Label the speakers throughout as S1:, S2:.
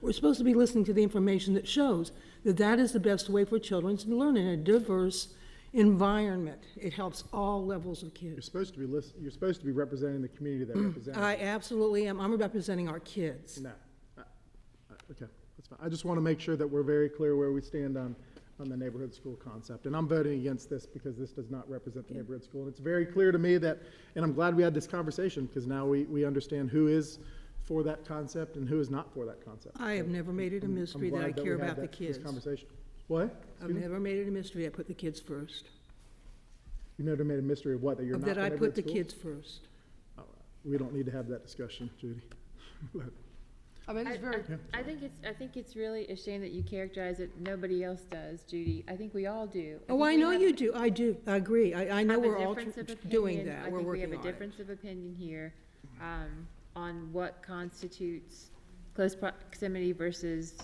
S1: We're supposed to be listening to the information that shows that that is the best way for children to learn in a diverse environment. It helps all levels of
S2: You're
S1: kids.
S2: supposed to be list, you're supposed to be representing the community that represents.
S1: Mm. I absolutely am. I'm representing our kids.
S2: No. Uh, uh, Okay, that's fine. I just want to make sure that we're very clear where we stand on, on the neighborhood school concept. And I'm voting against this because this does not represent the neighborhood school. And it's very clear to me that, and I'm glad we had this conversation because now we, we understand who is for that concept and who is not for that concept.
S1: I have never made it a
S2: I'm- I'm
S1: mystery that
S2: glad
S1: I
S2: we
S1: care
S2: had
S1: about the
S2: that- this
S1: kids.
S2: Conversation. What?
S1: I've never made it a mystery. I put the kids first.
S2: You never made a mystery of what, that you're not the
S1: That I put
S2: neighborhood
S1: the
S2: school?
S1: kids first.
S2: Oh, We don't need to have that discussion, Judy.
S3: I mean,
S4: I-
S3: it's very,
S4: I I think it's, I think it's really a shame that you characterize it, nobody else does, Judy. I think we all do.
S1: Oh, I
S4: think we
S1: know
S4: have-
S1: you do. I do. I agree. I, I know
S4: have a
S1: we're all
S4: difference of
S1: tr- doing
S4: opinion.
S1: that. We're working
S4: I think
S1: on
S4: we have a
S1: it.
S4: difference of opinion here um, on what constitutes close proximity versus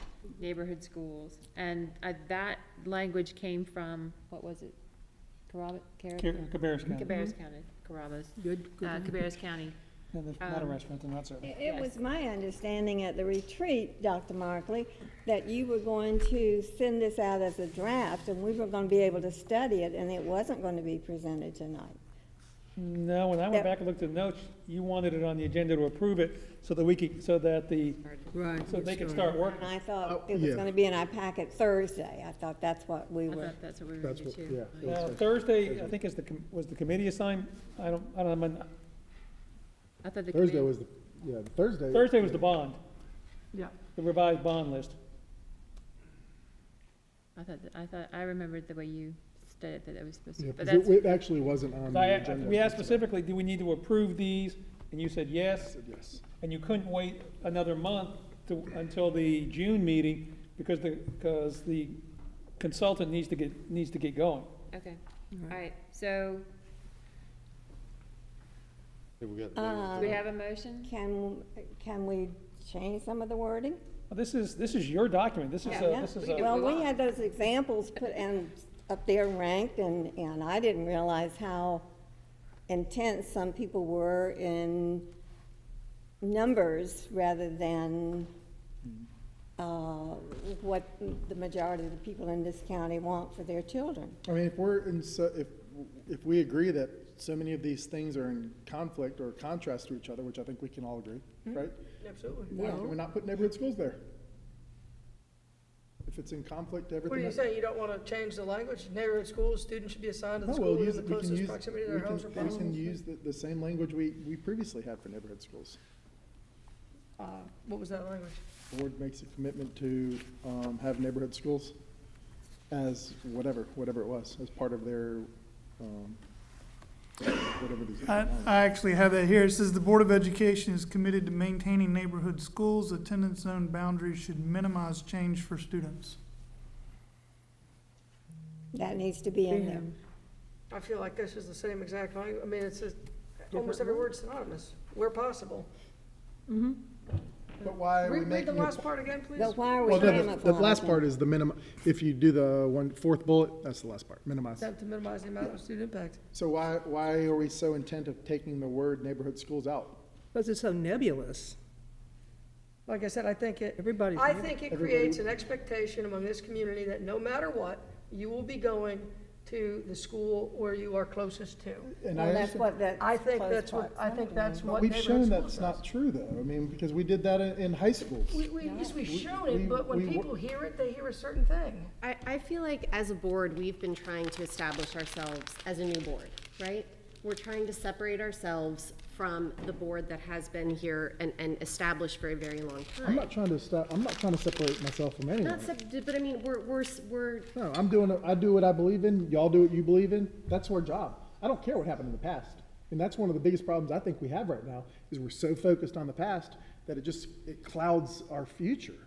S4: neighborhood schools. And uh, that language came from, what was it? Carrabba, Carrabba?
S5: Cabarrus County.
S4: Cabarrus County, Carrabba's,
S1: Good,
S4: uh,
S1: good.
S4: Cabarrus County.
S5: Yeah, there's not a
S4: Um,
S5: restaurant, and that's it.
S6: It it was my understanding at the retreat, Dr. Markley, that you were going to send this out as a draft, and we were going to be able to study it, and it wasn't going to be presented tonight.
S5: No, when I went
S6: Yep.
S5: back and looked at the notes, you wanted it on the agenda to approve it so that we could, so that the,
S1: Right.
S5: so they could
S1: good
S5: start working.
S6: And I thought
S2: Oh,
S6: it was
S2: yeah.
S6: going to be in our packet Thursday. I thought that's what we
S4: I
S6: were,
S4: thought that's what we were
S2: That's
S4: going to
S2: what-
S4: do.
S2: yeah.
S5: Now, Thursday, I think is the, com- was the committee assigned, I don't, I don't, know.
S4: I thought
S2: Thursday
S4: the committee-
S2: was, the yeah, Thursday.
S5: Thursday was the bond,
S1: Yeah.
S5: the revised bond list.
S4: I thought, that- I thought, I remembered the way you stated that it was supposed
S2: Yeah,
S4: to, but
S2: 'cause
S4: that's,
S2: it, it actually wasn't on
S5: I-
S2: the
S5: I-
S2: agenda.
S5: we asked specifically, do we need to approve these? And you said yes,
S2: Said Yes.
S5: and you couldn't wait another month to, until the June meeting because the, because the consultant needs to get, needs to get going.
S4: okay. All right, so do we
S6: Um,
S4: have a motion?
S6: can, can we change some of the wording?
S5: Well, This is, this is your document, this is,
S4: Yeah,
S5: a- this is,
S4: we
S5: a-
S4: can-
S6: Well,
S4: move
S6: we
S4: on.
S6: had those examples put and up there ranked, and, and I didn't realize how intense some people were in numbers rather than
S7: Hmm.
S6: uh, what the majority of the people in this county want for their children.
S2: I mean, if we're in, so, if, if we agree that so many of these things are in conflict or contrast to each other, which I think we can all agree,
S4: Mm-hmm.
S2: right?
S7: Absolutely.
S2: Why can we not put neighborhood schools there? If it's in conflict to
S7: What
S2: everything.
S7: are you
S2: else-
S7: saying, you don't want to change the language? Neighborhood schools, students should be assigned to
S2: No,
S7: the
S2: Oh, we'll
S7: school in
S2: use,
S7: the
S2: it- we can
S7: closest
S2: use,
S7: proximity to
S2: we
S7: their house or
S2: can, we
S7: farm.
S2: can use the, the same language we, we previously had for neighborhood schools.
S7: Uh, What was that language?
S2: Board makes a commitment to, um, have neighborhood schools as whatever, whatever it was, as part of their, um, whatever these.
S8: I, I actually have that here. It says the Board of Education is committed to maintaining neighborhood schools. Attendance zone boundaries should minimize change for students.
S6: That needs to be in there.
S7: I feel like this is the same exact language, I mean, it's just, almost every word's synonymous, where possible.
S2: But why are
S7: Read
S2: we
S7: read the
S2: making it
S7: last part again, please.
S6: But why are we
S2: Well,
S6: ramifying
S2: the, the last
S6: them?
S2: part is the minimum, if you do the one, fourth bullet, that's the last part, minimize.
S7: Attempt to minimize the amount of student impact.
S2: So why, why are we so intent of taking the word neighborhood schools out?
S1: Because it's so nebulous.
S7: Like I said, I think it,
S1: Everybody's.
S7: I
S1: neb-
S7: think it
S2: Everybody-
S7: creates an expectation among this community that no matter what, you will be going to the school where you are closest to.
S2: And I
S6: Well, that's
S2: understand,
S6: what that.
S7: I think
S6: close
S7: that's what, I think
S6: proximity
S7: that's
S6: is.
S7: what
S2: we've shown
S7: neighborhood
S2: that's
S7: schools
S2: not true though, I mean, because we did that in, in high schools.
S7: We, we, yes, we've shown
S2: we-
S7: it, but when
S2: we-
S7: people hear it, they hear a certain thing.
S9: I, I feel like as a board, we've been trying to establish ourselves as a new board, right? We're trying to separate ourselves from the board that has been here and, and established for a very long
S2: I'm
S9: time.
S2: not trying to stop, I'm not trying to separate myself from anyone.
S9: Not sep- but I mean, we're, we're, s- we're,
S2: No, I'm doing, it- I do what I believe in, y'all do what you believe in, that's our job. I don't care what happened in the past. And that's one of the biggest problems I think we have right now, is we're so focused on the past that it just, it clouds our future.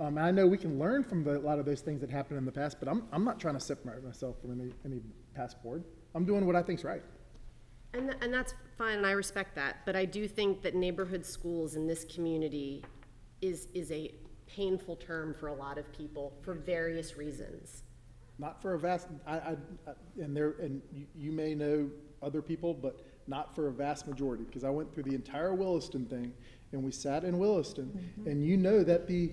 S2: Um, and I know we can learn from the, a lot of those things that happened in the past, but I'm, I'm not trying to separate myself from any, any past board. I'm doing what I think's right.
S9: and, th- and that's fine, and I respect that, but I do think that neighborhood schools in this community is, is a painful term for a lot of people for various reasons.
S2: Not for a vast, I, I, I- and there, and you, you may know other people, but not for a vast majority, because I went through the entire Williston thing, and we sat in Williston, and you know that the